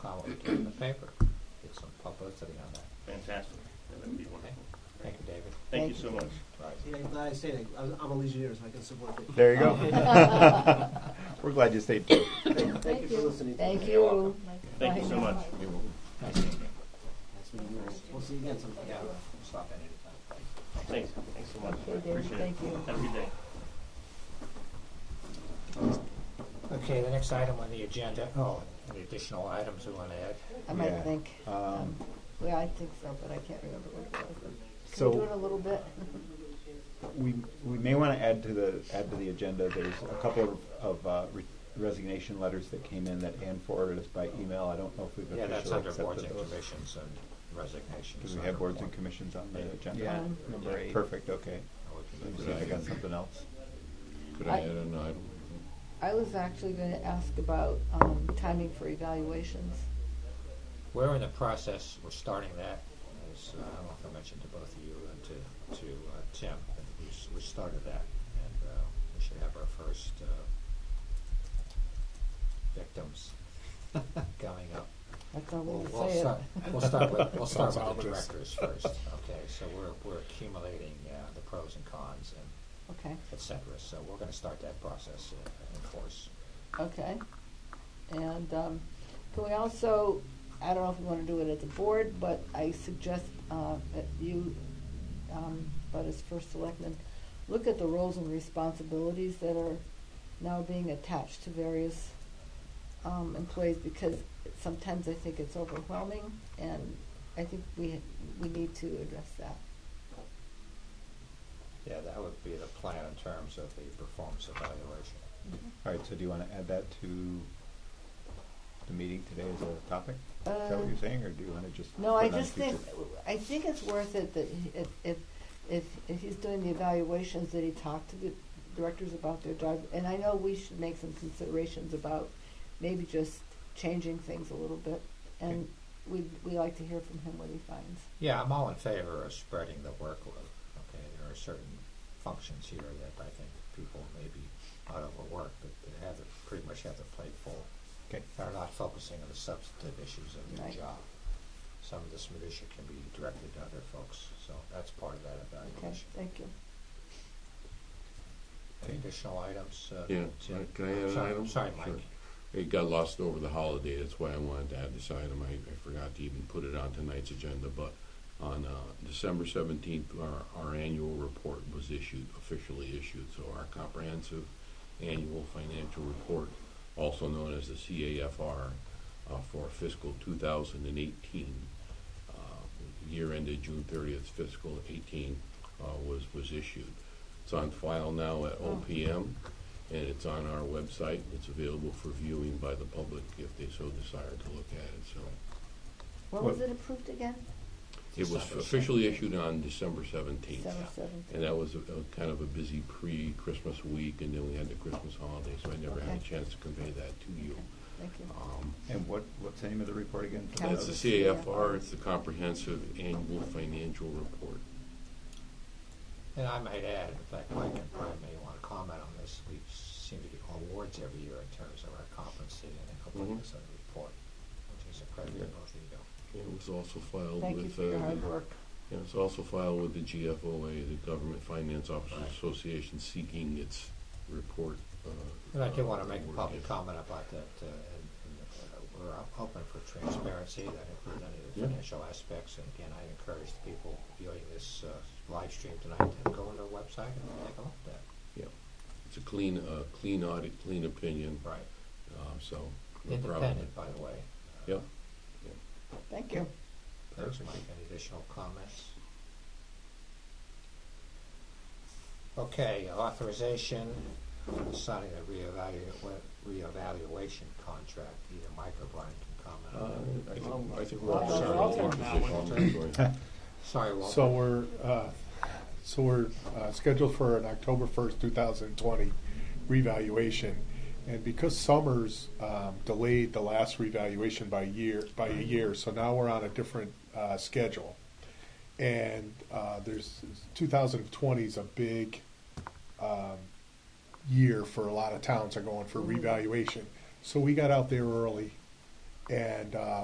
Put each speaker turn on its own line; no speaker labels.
put it in the paper, get some publicity on that.
Fantastic. Yeah, That'd be wonderful.
Thank you, David.
Thank you
Thank
so much.
Right.
See, I'm glad I stayed. I- I'm I'm a Legionnaire, so I can support it.
There you go. We're glad you stayed. put.
Thank you for listening.
Thank
You're
you.
welcome. Thank you so much.
Nice meeting you.
Nice meeting you. We'll see you again sometime.
Yeah, stop in anytime.
Thanks, thanks so much.
Okay, David,
Appreciate it.
thank you.
Have a good day.
Okay, the next item on the agenda, oh, any additional items we want to add?
I might
Yeah.
think,
Um,
um, well, I think so, but I can't remember what it was. Can we do it a
So
little bit?
we, we may want to add to the, add to the agenda, there's a couple of of uh, re- resignation letters that came in that Ann forwarded us by email. I don't know if we've
Yeah, that's
officially
under boards and
accepted those.
commissions and resignations.
Do we have
under
boards and
board.
commissions on the agenda?
Yeah.
Number eight.
Perfect, okay.
Oh, we can
Let me
do
see if I
that.
got something else.
Could I add an item?
I was actually going to ask about um, timing for evaluations.
We're in the process, we're starting that, as uh, I don't know if I mentioned to both of you and to, to uh, Tim, but we, s- we started that. And uh, we should have our first uh, victims coming up.
That's all
We'll,
we'll
we'll
say it.
start, we'll start with, we'll start with the directors first, okay? So we're, we're accumulating uh, the pros and cons and
Okay,
et cetera. So we're gonna start that process uh, in force.
okay. And um, can we also, I don't know if we want to do it at the board, but I suggest uh, that you, um, but as first selectman, look at the roles and responsibilities that are now being attached to various um, employees because sometimes I think it's overwhelming and I think we, we need to address that.
Yeah, that would be the plan in terms of the performance evaluation.
All right, so do you want to add that to the meeting today as a topic? Is that what
Uh,
you're saying, or do you want to just?
No,
put
I
it on
just think,
future?
I think it's worth it that he- if, if, if, if he's doing the evaluations, that he talk to the directors about their job. And I know we should make some considerations about maybe just changing things a little bit. And we'd, we like to hear from him what he finds.
Yeah, I'm all in favor of spreading the workload, okay? There are certain functions here that I think people may be out of work, but they have, their- pretty much have their plate full.
Okay.
They're not focusing on the substantive issues of their
Right.
job. Some of this minutia can be directed to other folks, so that's part of that
Okay,
evaluation.
thank you.
Any Additional items? uh,
Yeah,
Jim?
right, can I add an
Sorry-
item?
Sorry,
Sure.
Mike.
It got lost over the holiday, that's why I wanted to add this item. I, I forgot to even put it on tonight's agenda, but on uh, December seventeenth, our, our annual report was issued, officially issued. So our comprehensive annual financial report, also known as the CAFR, uh, for fiscal two thousand and eighteen, uh, year ended June thirtieth, fiscal eighteen, uh, was, was issued. It's on file now at
Oh.
OPM, and it's on our website. It's available for viewing by the public if they so desire to look at it, so.
What was it approved again?
It was
December
officially issued on December seventeenth.
December
And
seventh?
that was a, a kind of a busy pre-Christmas week, and then we had the Christmas holiday, so I never had a
Okay.
chance to convey that to you.
Thank you.
Um,
And what, what's the name of the report again? for
Council.
That's
those?
the CAFR, it's the Comprehensive Annual Financial Report.
And I might add, in fact, Mike and Brian may want to comment on this, we seem to get awards every year in terms of our competency and completeness of the report, which is a credit to
Mm-hmm. Yeah.
both of you.
It was also filed
Thank you
with,
for
uh,
your hard
the-
work.
yeah, it's also filed with the GFOA, the Government Finance Officers
Right.
Association, seeking its report. uh,
And I do
uh,
want to make a
award
public
gift.
comment about that, uh, and, and, uh, we're op- open for transparency, that includes any of the
Yeah.
financial aspects, and again, I encourage the people viewing this, uh, live stream tonight to go on their website and take a look at that.
Yeah, it's a clean, uh, clean audit, clean opinion,
Right.
uh, so. no problem.
Independent, by the way.
Yeah.
Thank you.
Thanks, Mike. Any additional comments? Okay, authorization for signing a reevalu- reevaluation contract. Either Mike or Brian can
Uh,
comment on
I
that.
think, I think
Well,
Walter's
that's
already
Walter.
in position. Sorry.
Sorry, Walter.
So we're, uh, so we're uh, scheduled for an October 1st, 2020 revaluation. And because Summers um, delayed the last revaluation by year, by a year, so now we're on a different uh, schedule. And uh, there's, 2020 is a big um, year for a lot of towns are going for revaluation. So we got out there early and uh,